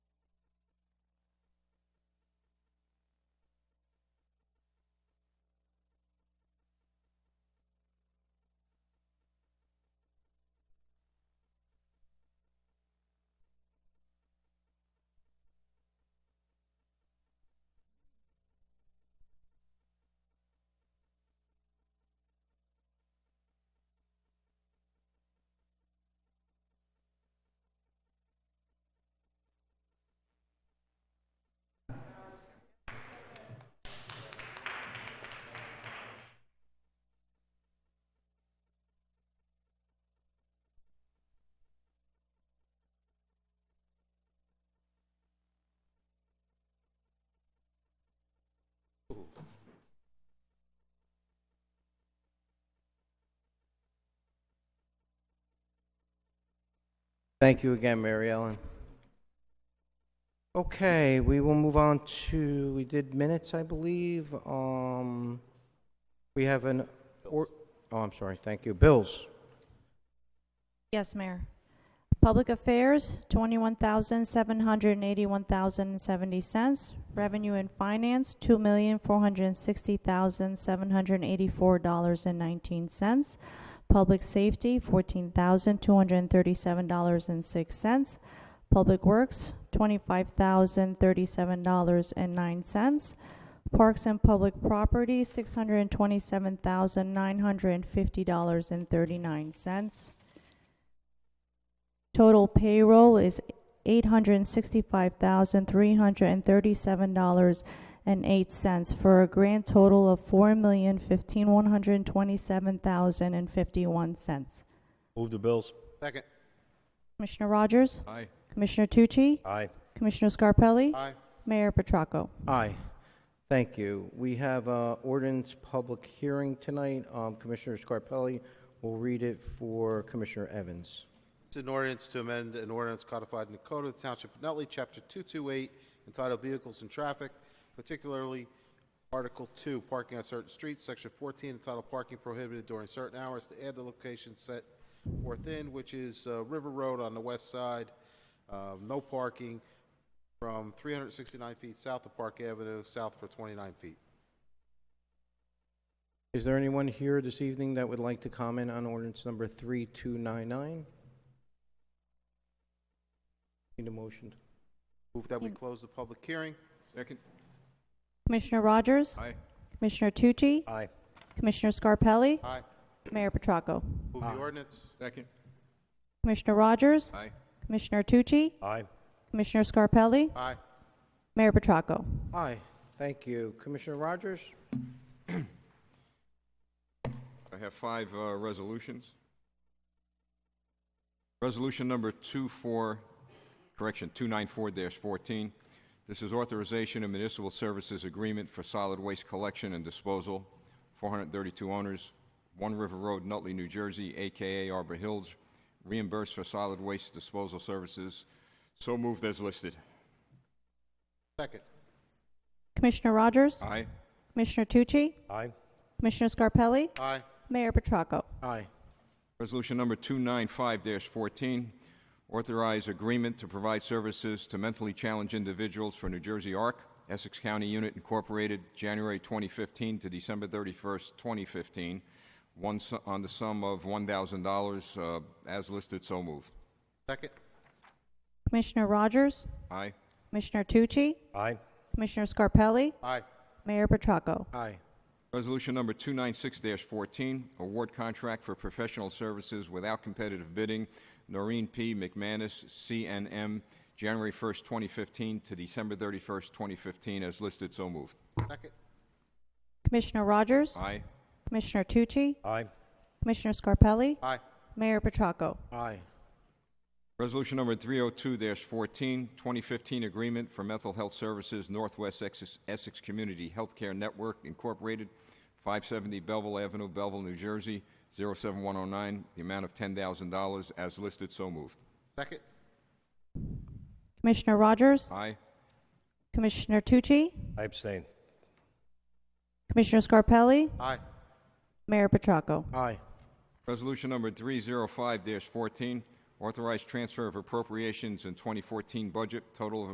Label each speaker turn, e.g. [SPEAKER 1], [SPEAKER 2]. [SPEAKER 1] Thank you again, Mary Ellen. Okay, we will move on to, we did minutes, I believe. Um, we have an, or, oh, I'm sorry, thank you. Bills.
[SPEAKER 2] Yes, Mayor. Public Affairs, twenty-one thousand, seven hundred and eighty-one thousand and seventy cents. Revenue and Finance, two million, four hundred and sixty thousand, seven hundred and eighty-four dollars and nineteen cents. Public Safety, fourteen thousand, two hundred and thirty-seven dollars and six cents. Public Works, twenty-five thousand, thirty-seven dollars and nine cents. Parks and Public Property, six hundred and twenty-seven thousand, nine hundred and fifty dollars and thirty-nine cents. Total payroll is eight hundred and sixty-five thousand, three hundred and thirty-seven dollars and eight cents for a grand total of four million, fifteen, one hundred and twenty-seven thousand and fifty-one cents.
[SPEAKER 3] Move the bills.
[SPEAKER 4] Second.
[SPEAKER 2] Commissioner Rogers?
[SPEAKER 3] Aye.
[SPEAKER 2] Commissioner Tucci?
[SPEAKER 1] Aye.
[SPEAKER 2] Commissioner Scarpelli?
[SPEAKER 4] Aye.
[SPEAKER 2] Mayor Petracco?
[SPEAKER 1] Aye. Thank you. We have uh ordinance public hearing tonight. Um, Commissioner Scarpelli will read it for Commissioner Evans.
[SPEAKER 4] It's an ordinance to amend an ordinance codified in the Code of the Township of Nutley, Chapter 228, entitled Vehicles and Traffic, particularly Article 2, Parking on Certain Streets, Section 14, entitled Parking Prohibited During Certain Hours, to add the location set forth in, which is uh, River Road on the west side, uh, no parking from 369 feet south of Park Avenue, south for 29 feet.
[SPEAKER 1] Is there anyone here this evening that would like to comment on ordinance number 3299? Need a motion?
[SPEAKER 4] Move that we close the public hearing.
[SPEAKER 3] Second.
[SPEAKER 2] Commissioner Rogers?
[SPEAKER 3] Aye.
[SPEAKER 2] Commissioner Tucci?
[SPEAKER 1] Aye.
[SPEAKER 2] Commissioner Scarpelli?
[SPEAKER 4] Aye.
[SPEAKER 2] Mayor Petracco?
[SPEAKER 4] Move the
[SPEAKER 1] Aye.
[SPEAKER 4] ordinance.
[SPEAKER 3] Second.
[SPEAKER 2] Commissioner Rogers?
[SPEAKER 3] Aye.
[SPEAKER 2] Commissioner Tucci?
[SPEAKER 1] Aye.
[SPEAKER 2] Commissioner Scarpelli?
[SPEAKER 4] Aye.
[SPEAKER 2] Mayor Petracco?
[SPEAKER 1] Aye. Thank you. Commissioner Rogers?
[SPEAKER 5] I have five uh, resolutions. Resolution number 24, correction, 294-14. This is authorization of municipal services agreement for solid waste collection and disposal, 432 owners, One River Road, Nutley, New Jersey, AKA Arbor Hills, reimbursed for solid waste disposal services. So moved as listed.
[SPEAKER 4] Second.
[SPEAKER 2] Commissioner Rogers?
[SPEAKER 5] Aye.
[SPEAKER 2] Commissioner Tucci?
[SPEAKER 1] Aye.
[SPEAKER 2] Commissioner Scarpelli?
[SPEAKER 4] Aye.
[SPEAKER 2] Mayor Petracco?
[SPEAKER 1] Aye.
[SPEAKER 5] Resolution number 295-14, authorize agreement to provide services to mentally challenged individuals for New Jersey ARC, Essex County Unit Incorporated, January 2015 to December 31st, 2015, one su- on the sum of $1,000, uh, as listed, so moved.
[SPEAKER 4] Second.
[SPEAKER 2] Commissioner Rogers?
[SPEAKER 5] Aye.
[SPEAKER 2] Commissioner Tucci?
[SPEAKER 1] Aye.
[SPEAKER 2] Commissioner Scarpelli?
[SPEAKER 4] Aye.
[SPEAKER 2] Mayor Petracco?
[SPEAKER 1] Aye.
[SPEAKER 5] Resolution number 296-14, award contract for professional services without competitive bidding, Noreen P. McManus, CNM, January 1st, 2015 to December 31st, 2015, as listed, so moved.
[SPEAKER 4] Second.
[SPEAKER 2] Commissioner Rogers?
[SPEAKER 5] Aye.
[SPEAKER 2] Commissioner Tucci?
[SPEAKER 1] Aye.
[SPEAKER 2] Commissioner Scarpelli?
[SPEAKER 4] Aye.
[SPEAKER 2] Mayor Petracco?
[SPEAKER 1] Aye.
[SPEAKER 5] Resolution number 302-14, 2015 agreement for mental health services, Northwest Essex Essex Community Healthcare Network Incorporated, 570 Belleville Avenue, Belleville, New Jersey, 07109, the amount of $10,000, as listed, so moved.
[SPEAKER 4] Second.
[SPEAKER 2] Commissioner Rogers?
[SPEAKER 5] Aye.
[SPEAKER 2] Commissioner Tucci?
[SPEAKER 3] I abstain.
[SPEAKER 2] Commissioner Scarpelli?
[SPEAKER 4] Aye.
[SPEAKER 2] Mayor Petracco?
[SPEAKER 1] Aye.
[SPEAKER 5] Resolution number 305-14, authorized transfer of appropriations in 2014 budget, total of